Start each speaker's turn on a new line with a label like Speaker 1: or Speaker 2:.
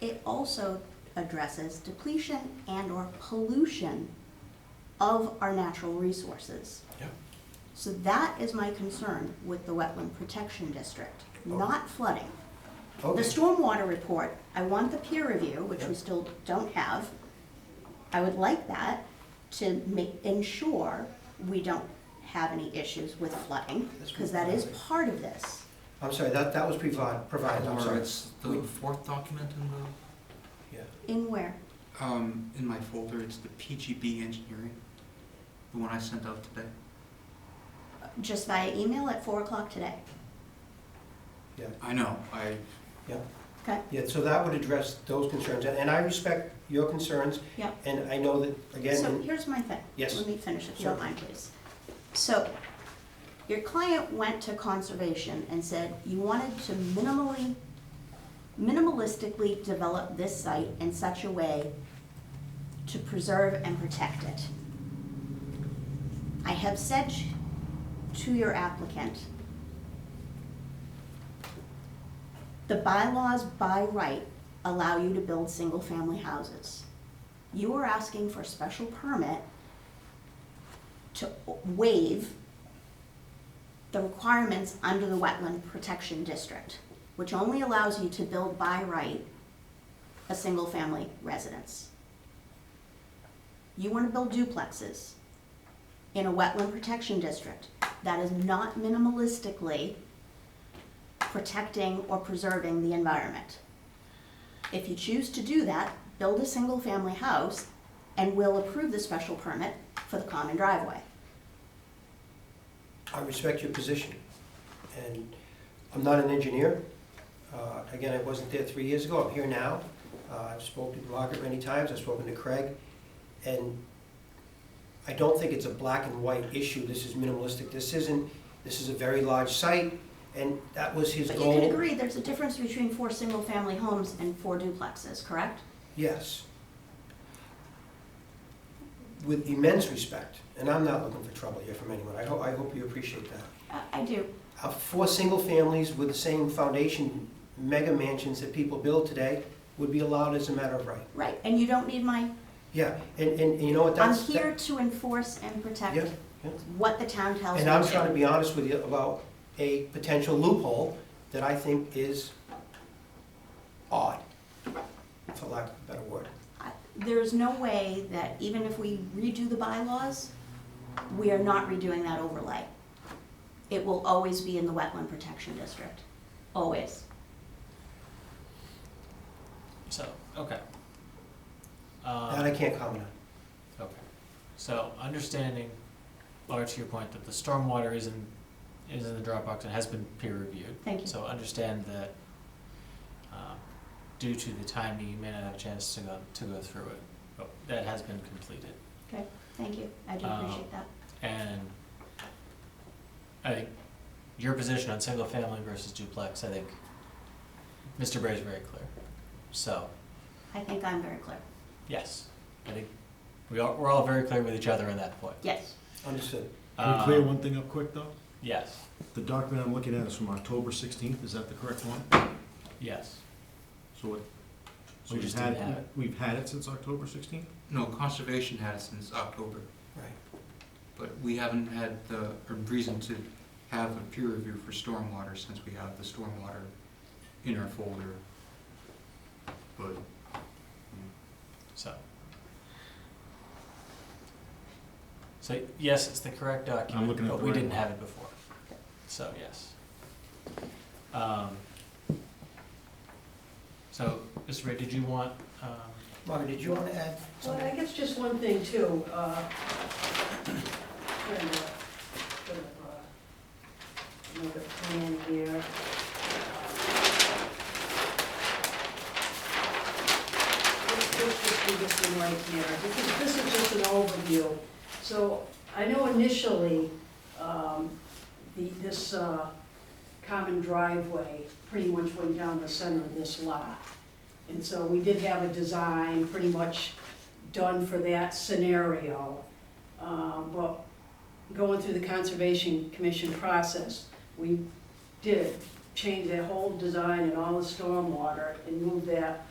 Speaker 1: it also addresses depletion and or pollution of our natural resources.
Speaker 2: Yep.
Speaker 1: So that is my concern with the Wetland Protection District, not flooding. The
Speaker 2: Oh. Okay.
Speaker 1: stormwater report, I want the peer review, which we
Speaker 2: Yep.
Speaker 1: still don't have. I would like that to make, ensure we don't have any issues with flooding,
Speaker 2: That's
Speaker 1: because that is
Speaker 2: right.
Speaker 1: part of this.
Speaker 2: I'm sorry, that, that was provided, provided, I'm
Speaker 3: Or
Speaker 2: sorry.
Speaker 3: it's the fourth document in the,
Speaker 2: Yeah.
Speaker 1: In where?
Speaker 3: um, in my folder, it's the PGB engineering, the one I sent out today.
Speaker 1: Just via email at four o'clock today,
Speaker 2: Yeah,
Speaker 3: I know, I,
Speaker 2: yeah.
Speaker 1: okay?
Speaker 2: Yeah, so that would address those concerns, and, and I respect your concerns,
Speaker 1: Yeah.
Speaker 2: and I know that,
Speaker 1: So
Speaker 2: again,
Speaker 1: here's my thing.
Speaker 2: Yes.
Speaker 1: Let me finish if you don't
Speaker 2: Sure.
Speaker 1: mind, please. So, your client went to conservation and said you wanted to minimally, minimalistically develop this site in such a way to preserve and protect it. I have said to your applicant, the bylaws by right allow you to build single-family houses you are asking for a special permit to waive the requirements under the Wetland Protection District, which only allows you to build by right a single-family residence. You want to build duplexes in a wetland protection district. That is not minimalistically protecting or preserving the environment. If you choose to do that, build a single-family house, and we'll approve the special permit for the common driveway.
Speaker 2: I respect your position. And I'm not an engineer. Uh, Again, I wasn't there three years ago, I'm here now. Uh, I've spoken to Margaret many times, I've spoken to Craig, and I don't think it's a black and white issue. This is minimalistic, this isn't, this is a very large site, and that was his
Speaker 1: But
Speaker 2: goal.
Speaker 1: you can agree, there's a difference between four single-family homes and four duplexes, correct?
Speaker 2: Yes. With immense respect, and I'm not looking for trouble here from anyone. I hope, I hope you appreciate that.
Speaker 1: Uh, I do.
Speaker 2: Uh, Four single families with the same foundation, mega mansions that people build today would be allowed as a matter of right.
Speaker 1: Right, and you don't need my,
Speaker 2: Yeah, and, and and you know what,
Speaker 1: I'm
Speaker 2: that's.
Speaker 1: here to enforce and
Speaker 2: that-
Speaker 1: protect
Speaker 2: Yeah, yeah.
Speaker 1: what the town tells me
Speaker 2: And
Speaker 1: to.
Speaker 2: I'm trying to be honest with you about a potential loophole that I think is odd, for lack of a better word.
Speaker 1: I- There's no way that even if we redo the bylaws, we are not redoing that overlay. It will always be in the wetland protection district, always.
Speaker 4: So, okay.
Speaker 2: That
Speaker 4: Um,
Speaker 2: I can't comment on.
Speaker 4: okay. So understanding, or to your point, that the stormwater is in, is in the Dropbox and has been peer reviewed.
Speaker 1: Thank you.
Speaker 4: So understand that, um, due to the timing, you may not have a chance to go, to go through it. But that has been completed.
Speaker 1: Okay, thank you, I
Speaker 2: Uh,
Speaker 1: do appreciate that.
Speaker 4: And I think your position on single family versus duplex, I think Mr. Bray's very clear. So,
Speaker 1: I think I'm very clear.
Speaker 4: yes, I think we are, we're all very clear with each other on that point.
Speaker 1: Yes,
Speaker 2: Understood.
Speaker 5: Can we
Speaker 4: Um,
Speaker 5: clear one thing up quick, though?
Speaker 4: Yes,
Speaker 5: The document I'm looking at is from October 16th, is that the correct one?
Speaker 4: yes.
Speaker 5: So it, so
Speaker 4: We
Speaker 5: we've
Speaker 4: just
Speaker 5: had,
Speaker 4: didn't have it.
Speaker 5: we've had it since October 16th?
Speaker 3: no, conservation had it since October,
Speaker 2: Right.
Speaker 3: but we haven't had the, or reason to have a peer review for stormwater since we have the stormwater in our folder. But
Speaker 4: So. So, yes, it's the correct
Speaker 5: I'm
Speaker 4: document,
Speaker 5: looking at
Speaker 4: but
Speaker 5: the
Speaker 4: we
Speaker 5: right
Speaker 4: didn't
Speaker 5: one.
Speaker 4: have it before. So, yes. Um, So, Mr. Ray, did you want, um,
Speaker 2: Margaret, did you want to add
Speaker 6: Well,
Speaker 2: something?
Speaker 6: I guess just one thing too, uh, kind of, kind of, uh, another plan here. Let's let's just do this one right here, because this is just an overview. So I know initially, um, the, this, uh, common driveway pretty much went down the center of this lot. And so we did have a design pretty much done for that scenario. Uh, But going through the Conservation Commission process, we did change that whole design and all the stormwater and move that